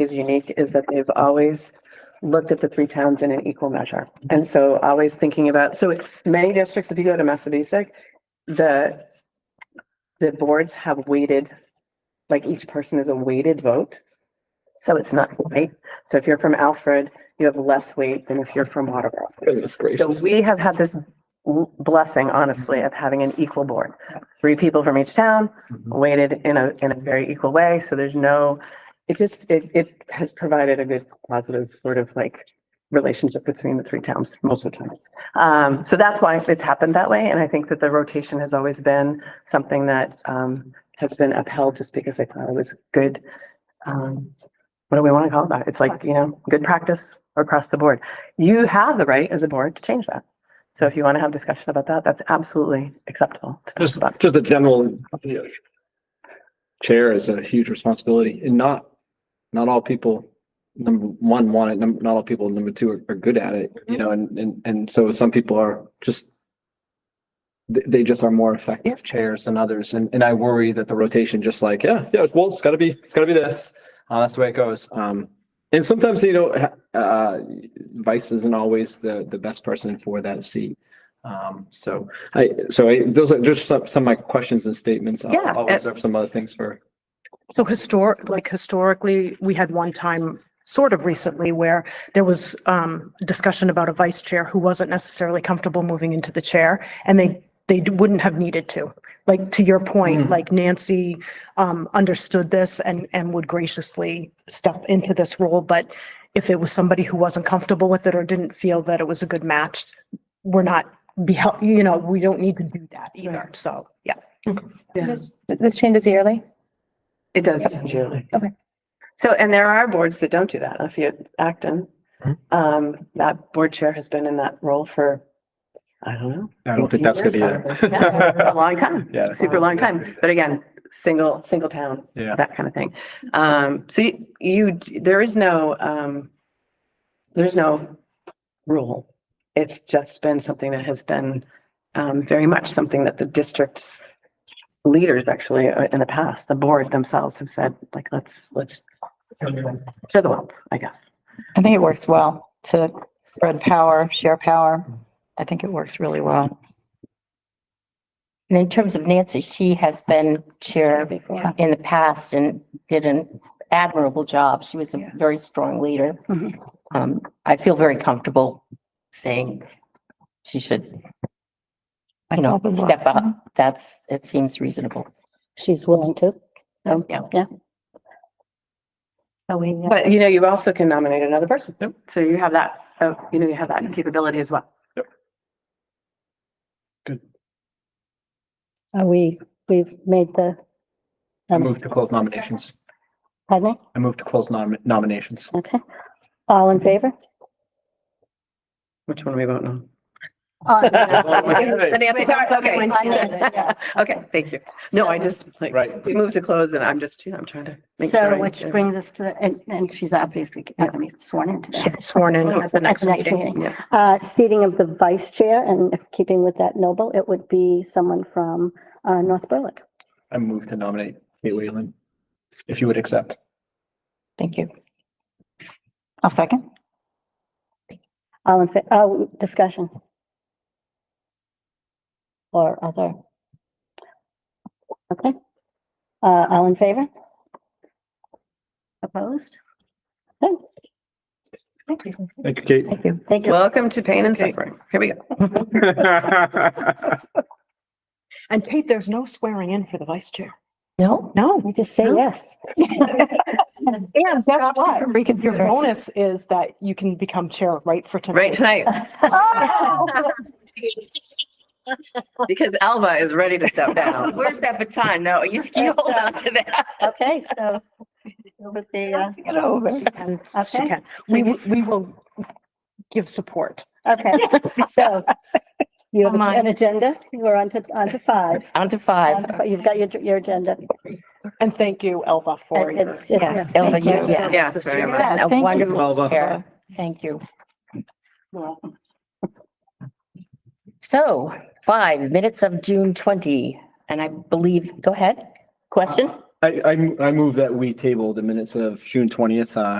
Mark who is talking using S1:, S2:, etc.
S1: is unique is that they've always looked at the three towns in an equal measure. And so always thinking about, so many districts, if you go to Massabesic, the the boards have weighted, like each person is a weighted vote. So it's not right. So if you're from Alfred, you have less weight than if you're from Waterboro.
S2: Goodness
S1: So
S2: gracious.
S1: we have had this blessing, honestly, of having an equal board. Three people from each town weighted in a, in a very equal way. So there's no, it just, it, it has provided a good positive sort of like relationship between the three towns most of the time. Um, so that's why it's happened that way. And I think that the rotation has always been something that, um, has been upheld just because they thought it was good. Um, what do we want to call that? It's like, you know, good practice across the board. You have the right as a board to change that. So if you want to have discussion about that, that's absolutely acceptable. to talk
S2: Just,
S1: about.
S2: just the general you know, chair is a huge responsibility and not, not all people, number one, want it, number, not all people, number two, are, are good at it, you know, and, and, and so some people are just they, they just are more effective chairs than others. And, and I worry that the rotation just like, yeah, yeah, it's, well, it's gotta be, it's gotta be this. Uh, that's the way it goes. Um, and sometimes, you know, ha- uh, vice isn't always the, the best person for that seat. Um, so I, so I, those are just some, some of my questions and statements. I'll-
S1: Yeah,
S2: I'll
S1: uh,
S2: reserve some other things for.
S3: So historic, like historically, we had one time, sort of recently, where there was um discussion about a vice chair who wasn't necessarily comfortable moving into the chair, and they they wouldn't have needed to. Like, to your point, like Nancy um understood this and and would graciously step into this role, but if it was somebody who wasn't comfortable with it or didn't feel that it was a good match, we're not be hel- you know, we don't need to do that either, so, yeah.
S4: This this changes yearly?
S1: It does change yearly.
S4: Okay.
S1: So, and there are boards that don't do that. If you Acton,
S2: Mhm.
S1: um, that board chair has been in that role for, I don't know.
S2: I don't think that's good
S1: 15 years probably. Yeah, A
S2: either.
S1: long time,
S2: Yeah.
S1: super long time. But again, single, single town,
S2: Yeah.
S1: that kind of thing. Um, so you- you, there is no, um, there's no rule. It's just been something that has been, um, very much something that the district's leaders actually uh, in the past, the board themselves have said, like, let's, let's to the world, I guess.
S4: I think it works well to spread power, share power. I think it works really well.
S5: And in terms of Nancy, she has been chair in the past and did an admirable job. She was a very strong leader.
S1: Mhm.
S5: Um, I feel very comfortable saying she should, you know, step up. That's, it seems reasonable.
S6: She's willing to.
S5: Yeah.
S6: Oh, we, yeah.
S1: But you know, you also can nominate another person.
S2: Yep.
S1: So you have that, oh, you know, you have that capability as well.
S6: Are uh, we, we've made the. um,
S2: I move to close nominations.
S6: Pardon me?
S2: I move to close nom- nominations.
S6: Okay. All in favor?
S1: Which one are we voting on?
S2: Right,
S1: Okay,
S6: Yeah.
S1: Okay, thank you. No, I just, like, we moved to close and I'm just, you know, I'm trying to. make sure
S6: So
S1: I-
S6: which brings us to, and, and she's obviously going to be sworn in today.
S3: Sworn in at the next meeting.
S1: Yeah.
S6: Uh, seating of the vice chair and keeping with that noble, it would be someone from, uh, North Berwick.
S2: I move to nominate Kate Whalen, if you would accept.
S5: Thank you.
S4: I'll second.
S6: All in, fa- oh, discussion. Or other. Okay. Uh, all in favor? Opposed? Okay.
S2: Thank you, Kate.
S5: Thank you.
S6: Thank you.
S1: Welcome to pain and suffering. Here we go.
S3: And Kate, there's no swearing in for the vice chair.
S5: No?
S3: No.
S6: You just say yes.
S3: And that's why. Your
S5: Reconsider.
S3: bonus is that you can become chair right for tonight.
S1: Right tonight, because Alva is ready to step down. Where's that baton? No, you, you hold on to that.
S6: Okay, so. with the, uh,
S5: Get over.
S3: And she
S6: Okay,
S3: can. We, will- we will give support.
S6: okay, so. You have
S4: Mine.
S6: an agenda, you are on to, on to five.
S5: On to five.
S6: You've got your, your agenda.
S3: And thank you, Elva, for
S6: It-
S3: your.
S6: it's- it's-
S5: Yes, Elva,
S6: thank
S5: you-
S6: you.
S5: yes.
S1: Yes, very much.
S5: Yes,
S4: thank
S5: A
S4: you.
S5: wonderful
S2: Elva.
S5: chair. Thank you. So five minutes of June twenty, and I believe, go ahead, question?
S2: I, I, I move that we table the minutes of June twentieth, uh,